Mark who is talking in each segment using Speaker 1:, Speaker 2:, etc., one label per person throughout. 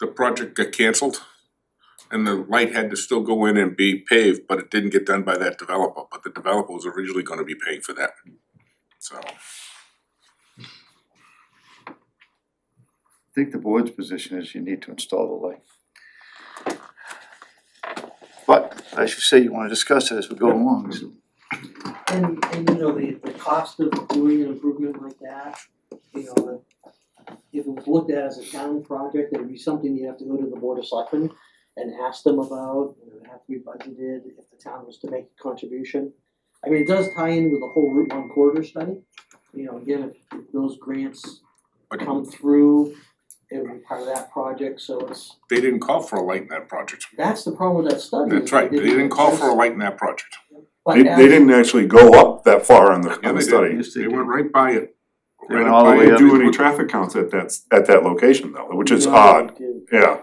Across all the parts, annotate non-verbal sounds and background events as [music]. Speaker 1: the project got canceled and the light had to still go in and be paved, but it didn't get done by that developer, but the developer was originally gonna be paying for that. So,
Speaker 2: I think the board's position is you need to install the light. But as you say, you wanna discuss it as we go along, so
Speaker 3: And and you know, the the cost of doing an improvement like that, you know, the if it was looked at as a town project, it would be something you have to go to the board of selectmen and ask them about, you know, it'd have to be budgeted if the town was to make a contribution. I mean, it does tie in with the whole Route One corridor study, you know, again, if if those grants
Speaker 1: but
Speaker 3: come through, it would be part of that project, so it's,
Speaker 1: they didn't call for a light in that project.
Speaker 3: that's the problem with that study. is
Speaker 1: That's right, they didn't call for a
Speaker 3: address-
Speaker 1: light in that project.
Speaker 3: but
Speaker 4: They,
Speaker 3: as-
Speaker 4: they didn't actually go up that far on the,
Speaker 1: Yeah,
Speaker 4: on
Speaker 1: they
Speaker 4: the
Speaker 1: did.
Speaker 4: study.
Speaker 2: Yes, they
Speaker 1: They
Speaker 2: did.
Speaker 1: went right by it.
Speaker 4: They
Speaker 1: Right
Speaker 4: went all the
Speaker 1: by
Speaker 4: way
Speaker 1: it.
Speaker 4: up. Do any traffic counts at that, s- at that location though, which is
Speaker 3: No,
Speaker 4: odd,
Speaker 3: it didn't.
Speaker 4: yeah.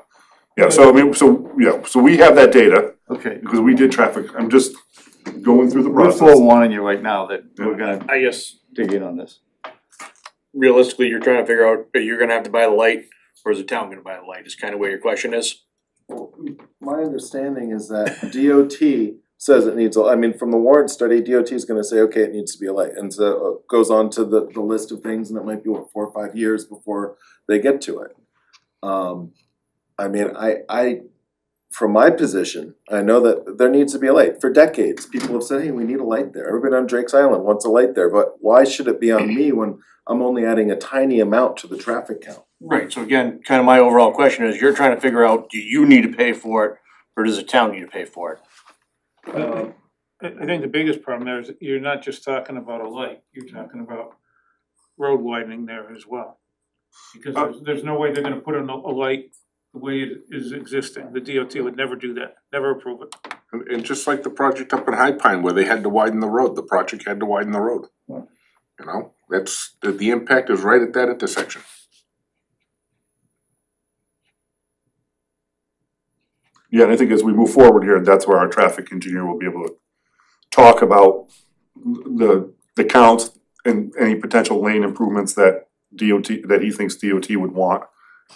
Speaker 4: Yeah, so I mean, so, yeah, so we have that data,
Speaker 2: okay.
Speaker 4: because we did traffic, I'm just going through the
Speaker 2: We're
Speaker 4: process.
Speaker 2: forewarning you right now that we're gonna
Speaker 5: I guess
Speaker 2: dig in on this.
Speaker 5: realistically, you're trying to figure out, are you gonna have to buy the light, or is the town gonna buy the light, is kind of where your question is.
Speaker 6: My understanding is that DOT says it needs, a- I mean, from the warrant study, DOT is gonna say, okay, it needs to be a light. And so it goes on to the, the list of things and it might be, what, four or five years before they get to it. Um, I mean, I, I, from my position, I know that there needs to be a light. For decades, people have said, hey, we need a light there. Everybody on Drake's Island wants a light there, but why should it be on me when I'm only adding a tiny amount to the traffic count?
Speaker 5: Right, so again, kind of my overall question is, you're trying to figure out, do you need to pay for it, or does the town need to pay for it?
Speaker 7: I, Um, I think the biggest problem there is that you're not just talking about a light, you're talking about road widening there as well. Because there's, there's no way they're gonna put in a, a light the way it is existing, the DOT would never do that, never approve it.
Speaker 1: And, and just like the project up in High Pine where they had to widen the road, the project had to widen the road.
Speaker 2: Yeah.
Speaker 1: You know, that's, the, the impact is right at that intersection.
Speaker 4: Yeah, and I think as we move forward here, that's where our traffic engineer will be able to talk about the, the counts and any potential lane improvements that DOT, that he thinks DOT would want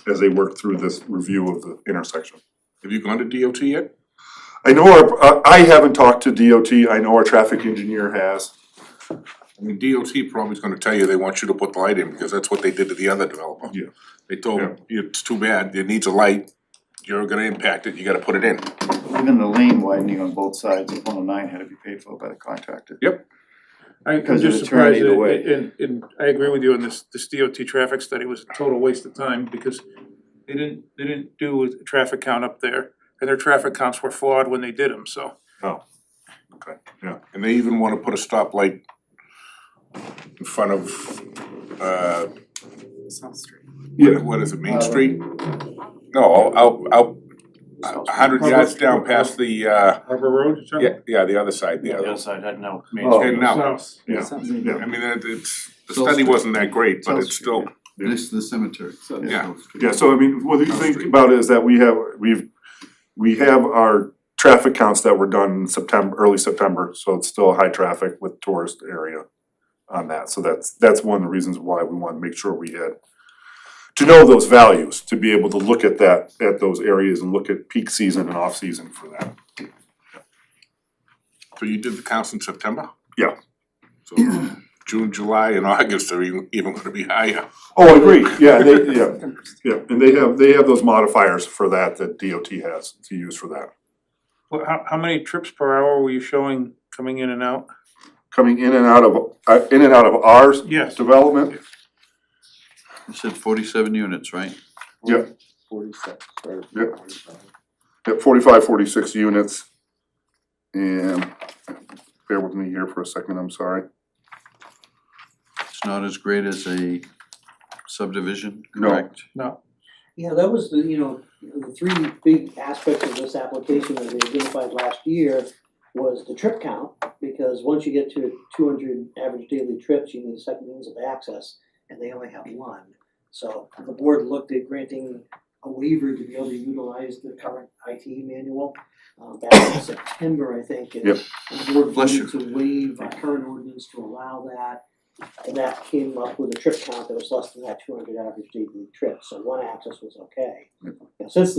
Speaker 4: as they work through this review of the intersection.
Speaker 1: Have you gone to DOT yet?
Speaker 4: I know our, uh, I haven't talked to DOT, I know our traffic engineer has.
Speaker 1: I mean, DOT probably is gonna tell you they want you to put the light in, because that's what they did to the other developer.
Speaker 4: Yeah.
Speaker 1: They told, him, it's too bad, it needs a light, you're gonna impact it, you gotta put it in.
Speaker 2: Even the lane widening on both sides of one oh nine had to be paid for by the contractor.
Speaker 7: I, I'm
Speaker 2: Because of
Speaker 7: just
Speaker 2: the turn
Speaker 7: surprised,
Speaker 2: either way.
Speaker 7: that- and, and I agree with you on this, this DOT traffic study was a total waste of time, because they didn't, they didn't do a traffic count up there, and their traffic counts were flawed when they did them, so.
Speaker 1: And they even wanna put a stoplight in front of, uh,
Speaker 8: South Street.
Speaker 1: what, what is it, Main Street? No, out, out, a hundred yards down past the, uh,
Speaker 7: Harbor Road, is that-
Speaker 1: yeah, yeah, the other side, the
Speaker 5: The
Speaker 1: other.
Speaker 5: other side, I don't know.
Speaker 2: Oh.
Speaker 1: And now,
Speaker 7: South.
Speaker 4: Yeah, yeah.
Speaker 1: I mean, it- it's, the
Speaker 9: South
Speaker 1: study
Speaker 9: Street.
Speaker 1: wasn't that great, but
Speaker 2: South
Speaker 1: it's
Speaker 2: Street,
Speaker 1: still,
Speaker 9: Next to the cemetery. So-
Speaker 1: Yeah.
Speaker 4: Yeah, so I mean, what do you think about it is that we have, we've, we have our traffic counts that were done in September, early September, so it's still high traffic with tourist area on that, so that's, that's one of the reasons why we wanna make sure we had to know those values, to be able to look at that, at those areas and look at peak season and off season for that.
Speaker 1: so you did the counts in September?
Speaker 4: Yeah.
Speaker 1: So [clears throat] June, July and August are even, even gonna be higher.
Speaker 4: Oh, I agree, yeah, they, yeah, yeah, and they have, they have those modifiers for that, that DOT has to use for that.
Speaker 7: Well, how, how many trips per hour were you showing coming in and out?
Speaker 4: Coming in and out of, uh, in and out of ours,
Speaker 7: Yes.
Speaker 4: development,
Speaker 9: You said forty-seven units, right?
Speaker 4: Yeah.
Speaker 6: Forty-six, right?
Speaker 4: Yep. at forty-five, forty-six units. And bear with me here for a second, I'm sorry.
Speaker 9: It's not as great as a subdivision,
Speaker 4: No.
Speaker 9: correct?
Speaker 3: Yeah, that was the, you know, the three big aspects of this application that we identified last year was the trip count, because once you get to two hundred average daily trips, you need a second means of access, and they only have one. So the board looked at granting a waiver to be able to utilize the current IT manual, um, back in September, I think, and
Speaker 4: Yep.
Speaker 3: the board
Speaker 9: Bless you.
Speaker 3: voted to waive our current ordinance to allow that, And that came up with a trip count that was less than that two hundred average daily trip, so one access was okay. Now, since